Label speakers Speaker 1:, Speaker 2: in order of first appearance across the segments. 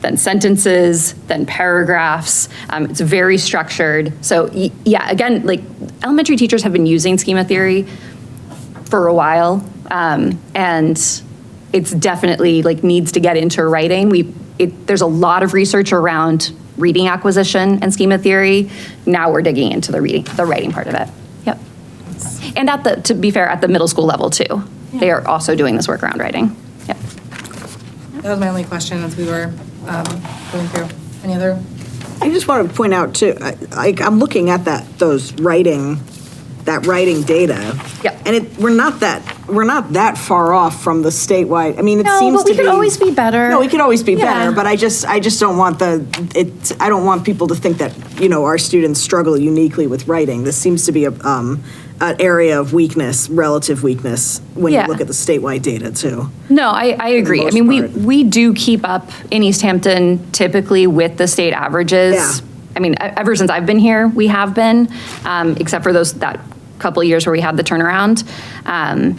Speaker 1: then sentences, then paragraphs. Um, It's very structured. So, y- yeah, again, like, elementary teachers have been using schema theory for a while, um, and it's definitely, like, needs to get into writing. We, it, there's a lot of research around reading acquisition and schema theory. Now we're digging into the reading, the writing part of it. Yep. And at the, to be fair, at the middle school level, too. They are also doing this work around writing. Yep.
Speaker 2: That was my only question as we were um, going through. Any other?
Speaker 3: I just want to point out too, I- like, I'm looking at that, those writing, that writing data.
Speaker 1: Yep.
Speaker 3: And it, we're not that, we're not that far off from the statewide, I mean, it
Speaker 1: No,
Speaker 3: seems
Speaker 1: but
Speaker 3: to
Speaker 1: we
Speaker 3: be.
Speaker 1: could always be better.
Speaker 3: No, we could always be
Speaker 1: Yeah.
Speaker 3: better, but I just, I just don't want the, it, I don't want people to think that, you know, our students struggle uniquely with writing. This seems to be a, um, an area of weakness, relative weakness, when you
Speaker 1: Yeah.
Speaker 3: look at the statewide data too.
Speaker 1: No, I, I agree. I
Speaker 3: most
Speaker 1: mean, we,
Speaker 3: part.
Speaker 1: we do keep up in East Hampton typically with the state averages.
Speaker 3: Yeah.
Speaker 1: I mean, e- ever since I've been here, we have been, um, except for those, that couple of years where we had the turnaround. Um,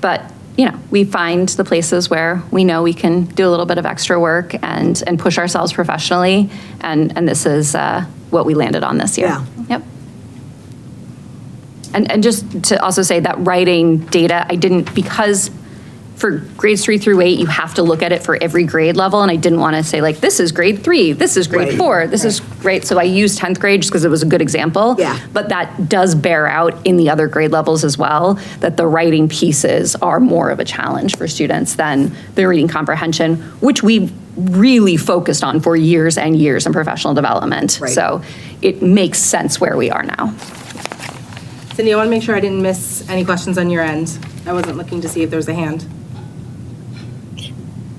Speaker 1: But, you know, we find the places where we know we can do a little bit of extra work and, and push ourselves professionally. And, and this is uh, what we landed on this year.
Speaker 3: Yeah.
Speaker 1: Yep. And, and just to also say that writing data, I didn't, because for grades three through eight, you have to look at it for every grade level, and I didn't want to say like, this is grade three, this is grade
Speaker 3: Right.
Speaker 1: four, this is, right, so I used 10th grade just because it was a good example.
Speaker 3: Yeah.
Speaker 1: But that does bear out in the other grade levels as well, that the writing pieces are more of a challenge for students than the reading comprehension, which we really focused on for years and years in professional development.
Speaker 3: Right.
Speaker 1: So it makes sense where we are now.
Speaker 2: Cindy, I want to make sure I didn't miss any questions on your end. I wasn't looking to see if there was a hand.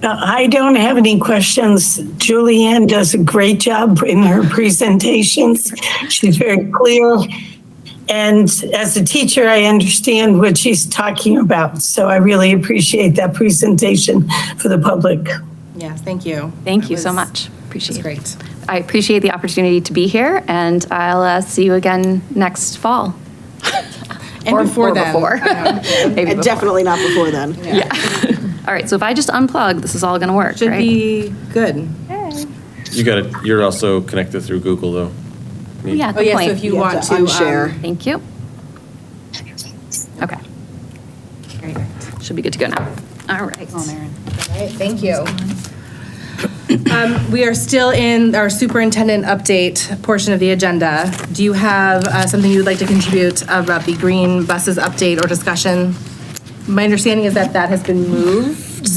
Speaker 4: Uh, I don't have any questions. Julianne does a great job in her presentations. She's very clear. And as a teacher, I understand what she's talking about. So I really appreciate that presentation for the public.
Speaker 2: Yes, thank you.
Speaker 1: Thank
Speaker 2: That
Speaker 1: you so
Speaker 2: was-
Speaker 1: much. Appreciate it.
Speaker 2: That's great.
Speaker 1: I appreciate the opportunity to be here, and I'll uh, see you again next fall.
Speaker 2: And
Speaker 1: Or-
Speaker 2: before
Speaker 1: or
Speaker 2: then.
Speaker 1: before.
Speaker 2: I know.
Speaker 1: Maybe
Speaker 3: And
Speaker 1: before.
Speaker 3: definitely not before then.
Speaker 1: All right, so if I just unplug, this is all going to work,
Speaker 2: Should
Speaker 1: right?
Speaker 2: be good.
Speaker 5: You got it. You're also connected through Google, though.
Speaker 1: Yeah,
Speaker 2: Oh,
Speaker 1: good
Speaker 2: yeah, so if
Speaker 1: point.
Speaker 2: you
Speaker 3: You have
Speaker 2: want
Speaker 3: to
Speaker 2: to. um,
Speaker 3: unshare.
Speaker 1: Thank you. Okay,
Speaker 2: Very good.
Speaker 1: should be good to go now. All right.
Speaker 2: All right, thank you. Um, We are still in our superintendent update portion of the agenda. Do you have uh, something you would like to contribute about the green buses update or discussion? My understanding is that that has been moved.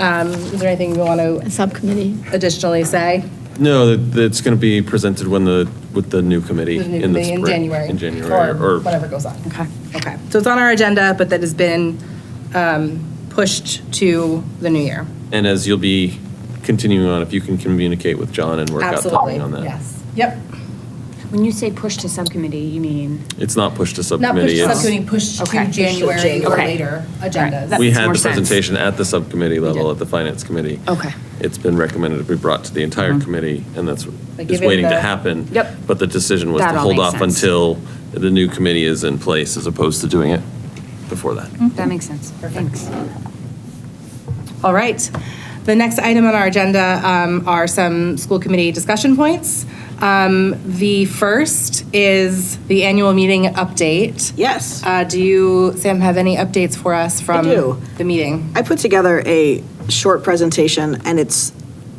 Speaker 2: Um, Is there anything you want to
Speaker 6: subcommittee.
Speaker 2: additionally say?
Speaker 5: No, that- that's going to be presented when the, with the new committee
Speaker 2: There's a new
Speaker 5: in the
Speaker 2: committee
Speaker 5: spring.
Speaker 2: In January.
Speaker 5: In January, or
Speaker 2: Whatever goes on. Okay. Okay, so it's on our agenda, but that has been um, pushed to the new year.
Speaker 5: And as you'll be continuing on, if you can communicate with John and work out
Speaker 2: Absolutely,
Speaker 5: something on that.
Speaker 2: yes. Yep.
Speaker 7: When you say push to subcommittee, you mean?
Speaker 5: It's not pushed to
Speaker 2: Not pushed
Speaker 5: subcommittee.
Speaker 2: to
Speaker 5: it's-
Speaker 2: subcommittee, pushed to
Speaker 7: Okay.
Speaker 2: January or
Speaker 7: Okay.
Speaker 2: later agendas.
Speaker 5: We
Speaker 7: Makes
Speaker 5: had
Speaker 7: more
Speaker 5: the
Speaker 7: sense.
Speaker 5: presentation at the subcommittee level, at the finance committee.
Speaker 7: Okay. Mm-hmm.
Speaker 5: It's been recommended to be brought to the entire committee, and that's,
Speaker 2: But
Speaker 5: is
Speaker 2: given
Speaker 5: waiting
Speaker 2: the-
Speaker 5: to happen.
Speaker 2: Yep.
Speaker 5: But the decision was
Speaker 7: That
Speaker 5: to
Speaker 7: all
Speaker 5: hold
Speaker 7: makes
Speaker 5: off
Speaker 7: sense.
Speaker 5: until the new committee is in place, as opposed to doing it before that.
Speaker 7: That makes sense. Thanks.
Speaker 2: All right. The next item on our agenda um, are some school committee discussion points. Um, The first is the annual meeting update.
Speaker 3: Yes.
Speaker 2: Uh, Do you, Sam, have any updates for us from
Speaker 3: do.
Speaker 2: the meeting?
Speaker 3: I put together a short presentation, and it's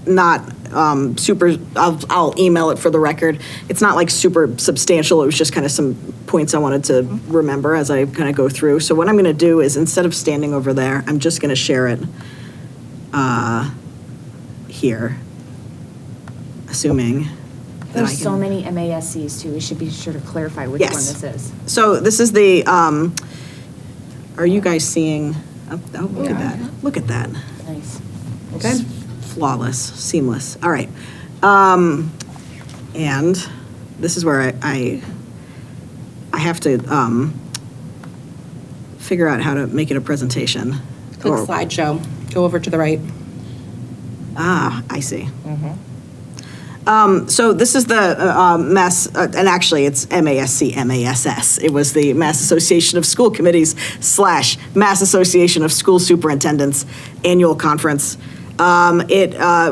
Speaker 3: not um, super, I'll, I'll email it for the record. It's not like super substantial, it was just kind of some points I wanted to remember as I kind of go through. So what I'm going to do is, instead of standing over there, I'm just going to share it uh, here, assuming. that I
Speaker 7: There's
Speaker 3: can-
Speaker 7: so many MASCs too. We should be sure to clarify which one
Speaker 3: Yes.
Speaker 7: this is.
Speaker 3: So this is the, um, are you guys seeing, oh, oh, look at that, look at that.
Speaker 7: Nice.
Speaker 2: Okay.
Speaker 3: flawless, seamless. All right. Um, and this is where I, I, I have to um, figure out how to make it a presentation.
Speaker 2: Click
Speaker 3: Or-
Speaker 2: slideshow. Go over to the right.
Speaker 3: Ah, I see. Um, so this is the uh, um, Mass, uh, and actually it's MASC, MASS. It was the Mass Association of School Committees slash Mass Association of School Superintendents Annual Conference. Um, it uh,